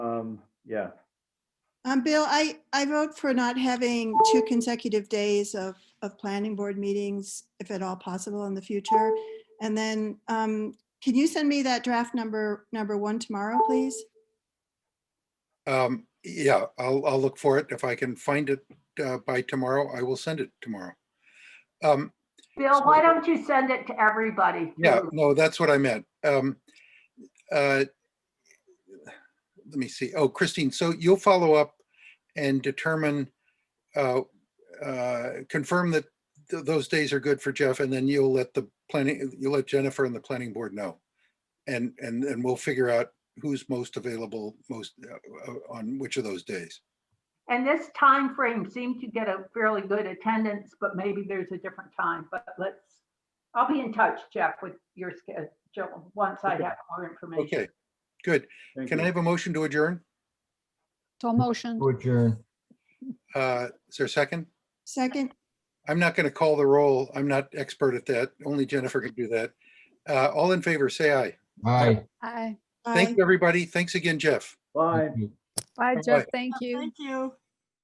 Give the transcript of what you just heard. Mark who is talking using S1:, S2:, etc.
S1: yeah.
S2: Um, Bill, I, I vote for not having two consecutive days of, of planning board meetings, if at all possible in the future. And then, um, can you send me that draft number, number one tomorrow, please?
S3: Um, yeah, I'll, I'll look for it. If I can find it, uh, by tomorrow, I will send it tomorrow. Um,
S4: Bill, why don't you send it to everybody?
S3: yeah,
S4: too?
S3: no, that's what I meant. Um, uh, let me see. Oh, Christine, so you'll follow up and determine, uh, uh, confirm that th- those days are good for Jeff and then you'll let the planning, you'll let Jennifer and the planning board know. And, and, and we'll figure out who's most available, most, uh, uh, on which of those days.
S4: And this time frame seemed to get a fairly good attendance, but maybe there's a different time, but let's, I'll be in touch, Jeff, with your schedule, once I
S1: Okay.
S4: have more information.
S3: Okay, good.
S1: thank
S3: Can I
S1: you.
S3: have a motion to adjourn?
S5: So motion.
S6: To adjourn.
S3: Uh, Is there a second?
S2: Second,
S3: I'm not going to call the roll. I'm not expert at that. Only Jennifer can do that. Uh, All in favor, say aye.
S6: Aye.
S5: Aye.
S2: I.
S3: Thank you, everybody. Thanks again, Jeff.
S1: Bye.
S5: Bye,
S3: Bye-bye.
S5: Jeff. Thank you.
S7: Thank you.